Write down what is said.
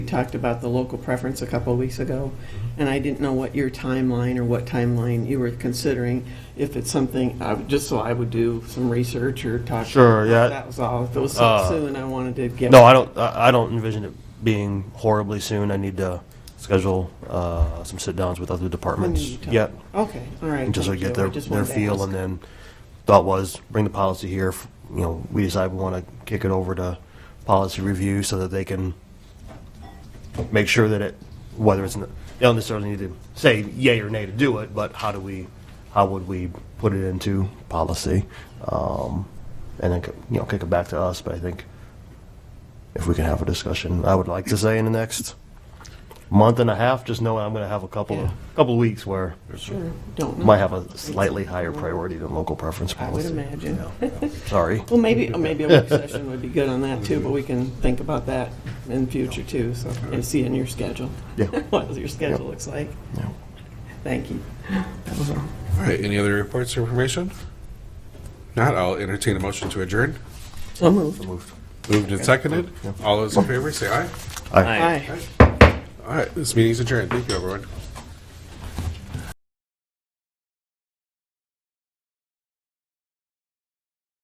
We talked about the local preference a couple of weeks ago, and I didn't know what your timeline or what timeline you were considering. If it's something, I would- just so I would do some research or talk. Sure, yeah. That was all. If it was Uh, so soon, I wanted to get. No, I don't, I I don't envision it being horribly soon. I need to schedule uh, some sit-downs with other departments yet, Okay, all right. until I thank you. get their, just their wanted to feel, ask. and then thought was, bring the policy here, f- you know, we decide we want to kick it over to policy review so that they can make sure that it, whether it's, n- they don't necessarily need to say yay or nay to do it, but how do we, how would we put it into policy? Um, And then, c- you know, kick it back to us, but I think if we can have a discussion. I would like to say in the next month and a half, just knowing I'm going to have a couple of, Yeah. couple of weeks where Sure, don't know. might have a slightly higher priority than local preference I would policy. imagine. Sorry. Well, maybe, maybe a work session would be good on that too, but we can think about that in future too, so, and see in your schedule. Yeah. What your schedule looks like. Yeah. Thank you. That was all. All right, any other reports or information? Not, I'll entertain a motion to adjourn. So moved. Moved. Moved and seconded. All those in favor, say aye. Aye. Aye. All right, this meeting's adjourned. Thank you, everyone.